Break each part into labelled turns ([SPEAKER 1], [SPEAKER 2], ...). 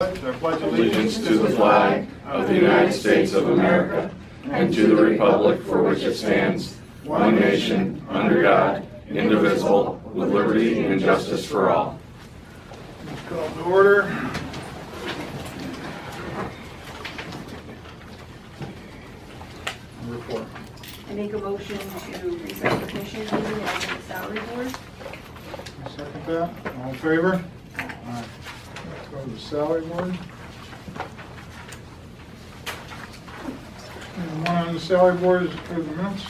[SPEAKER 1] I pledge
[SPEAKER 2] allegiance to the flag of the United States of America and to the republic for which it stands, one nation, under God, indivisible, with liberty and justice for all.
[SPEAKER 1] Call to order. Number four.
[SPEAKER 3] I make a motion to recess the commission meeting and open the salary board.
[SPEAKER 1] Second that, all in favor? Aye. Let's go to the salary board. And one on the salary board is approve the minutes.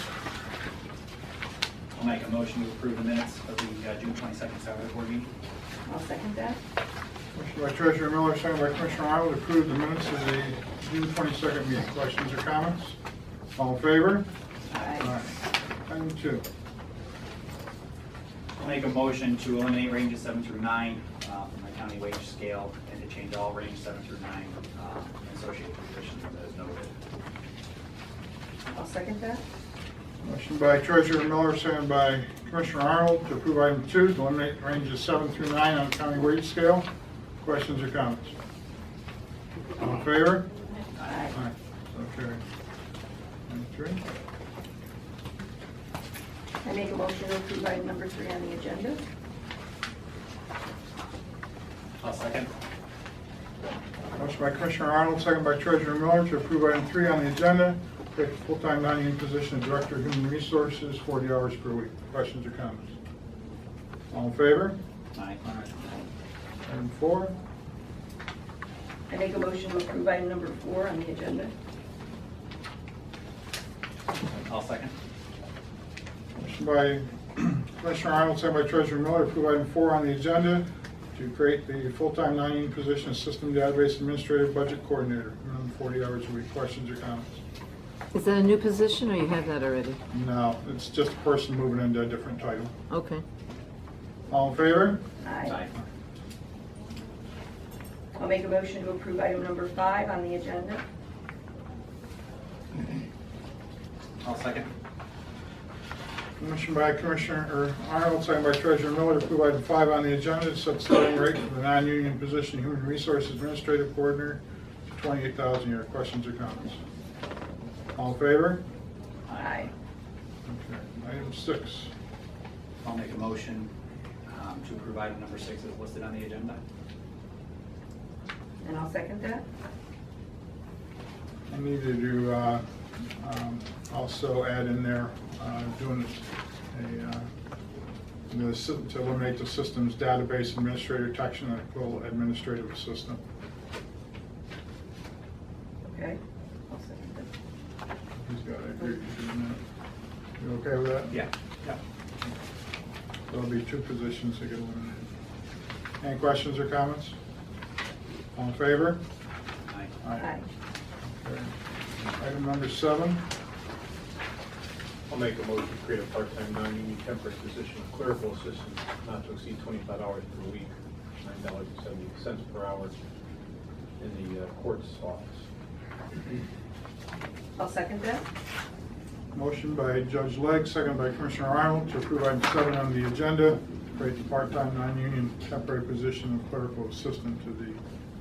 [SPEAKER 4] I'll make a motion to approve the minutes of the uh, June 22nd salary board meeting.
[SPEAKER 3] I'll second that.
[SPEAKER 1] Motion by Treasurer Miller, second by Commissioner Arnold, to approve the minutes of the June 22nd meeting. Questions or comments? All in favor?
[SPEAKER 3] Aye.
[SPEAKER 1] Item two.
[SPEAKER 4] I'll make a motion to eliminate ranges seven through nine uh, from the county wage scale and to change all range seven through nine uh, and associated positions as noted.
[SPEAKER 3] I'll second that.
[SPEAKER 1] Motion by Treasurer Miller, second by Commissioner Arnold, to approve item two, to eliminate ranges seven through nine on the county wage scale. Questions or comments? All in favor?
[SPEAKER 3] Aye.
[SPEAKER 1] Aye, so carried. Item three.
[SPEAKER 3] I make a motion to approve item number three on the agenda.
[SPEAKER 4] I'll second.
[SPEAKER 1] Motion by Commissioner Arnold, second by Treasurer Miller, to approve item three on the agenda, take the full-time non-union position of Director of Human Resources, 40 hours per week. Questions or comments? All in favor?
[SPEAKER 4] Aye.
[SPEAKER 1] Item four.
[SPEAKER 3] I make a motion to approve item number four on the agenda.
[SPEAKER 4] I'll second.
[SPEAKER 1] Motion by Commissioner Arnold, second by Treasurer Miller, approve item four on the agenda to create the full-time non-union position of System Database Administrative Budget Coordinator, minimum 40 hours a week. Questions or comments?
[SPEAKER 5] Is that a new position, or you had that already?
[SPEAKER 1] No, it's just a person moving into a different title.
[SPEAKER 5] Okay.
[SPEAKER 1] All in favor?
[SPEAKER 3] Aye. I'll make a motion to approve item number five on the agenda.
[SPEAKER 4] I'll second.
[SPEAKER 1] Motion by Commissioner or Arnold, second by Treasurer Miller, to approve item five on the agenda, to set starting rate for the non-union position Human Resources Administrative Coordinator to $28,000 a year. Questions or comments? All in favor?
[SPEAKER 3] Aye.
[SPEAKER 1] Okay. Item six.
[SPEAKER 4] I'll make a motion um, to approve item number six as listed on the agenda.
[SPEAKER 3] And I'll second that.
[SPEAKER 1] I need to do, uh, um, also add in there, uh, doing a, uh, the sy- to eliminate the systems database administrator section and equal administrative assistant.
[SPEAKER 3] Okay. I'll second that.
[SPEAKER 1] He's got to agree to do that. You okay with that?
[SPEAKER 4] Yeah. Yeah.
[SPEAKER 1] There'll be two positions that get eliminated. Any questions or comments? All in favor?
[SPEAKER 4] Aye.
[SPEAKER 3] Aye.
[SPEAKER 1] Okay. Item number seven.
[SPEAKER 6] I'll make a motion to create a part-time non-union temporary position of clerical assistant, not to exceed twenty-five hours per week, nine dollars and seventy cents per hour in the uh, court's office.
[SPEAKER 3] I'll second that.
[SPEAKER 1] Motion by Judge Legg, second by Commissioner Arnold, to approve item seven on the agenda, create the part-time, non-union temporary position of clerical assistant to the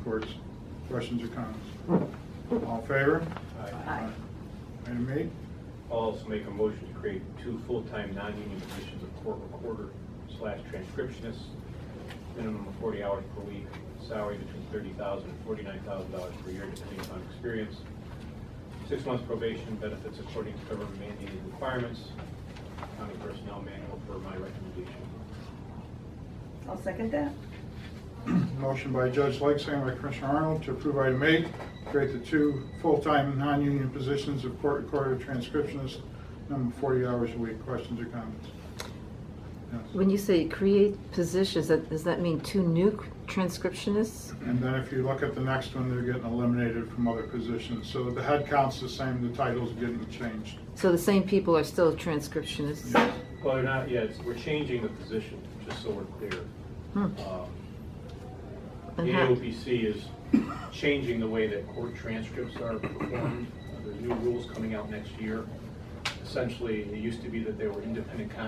[SPEAKER 1] courts. Questions or comments? All in favor?
[SPEAKER 6] I-
[SPEAKER 3] Aye.
[SPEAKER 1] Item eight,
[SPEAKER 6] I'll also make a motion to create two full-time non-union positions of court recorder slash transcriptionist, minimum of forty hours per week, salary between thirty thousand and forty-nine thousand dollars per year, depending upon experience. Six months probation, benefits according to government mandated requirements, county personnel manual for my recommendation.
[SPEAKER 3] I'll second that.
[SPEAKER 1] motion by Judge Legg, second by Commissioner Arnold, to approve item eight, create the two full-time, non-union positions of court recorder transcriptionist, number 40 hours a week. Questions or comments? Yes.
[SPEAKER 5] When you say create positions, that- does that mean two new transcriptionists?
[SPEAKER 1] And then if you look at the next one, they're getting eliminated from other positions. So the head count's the same, the title's getting changed.
[SPEAKER 5] So the same people are still transcriptionists?
[SPEAKER 6] Well, they're not, yeah, it's, we're changing the position, just so we're clear.
[SPEAKER 5] Hmm.
[SPEAKER 6] Um, The
[SPEAKER 5] And how-
[SPEAKER 6] AOPC is changing the way that court transcripts are performed. Uh, There's new rules coming out next year. Essentially, it used to be that they were independent contractors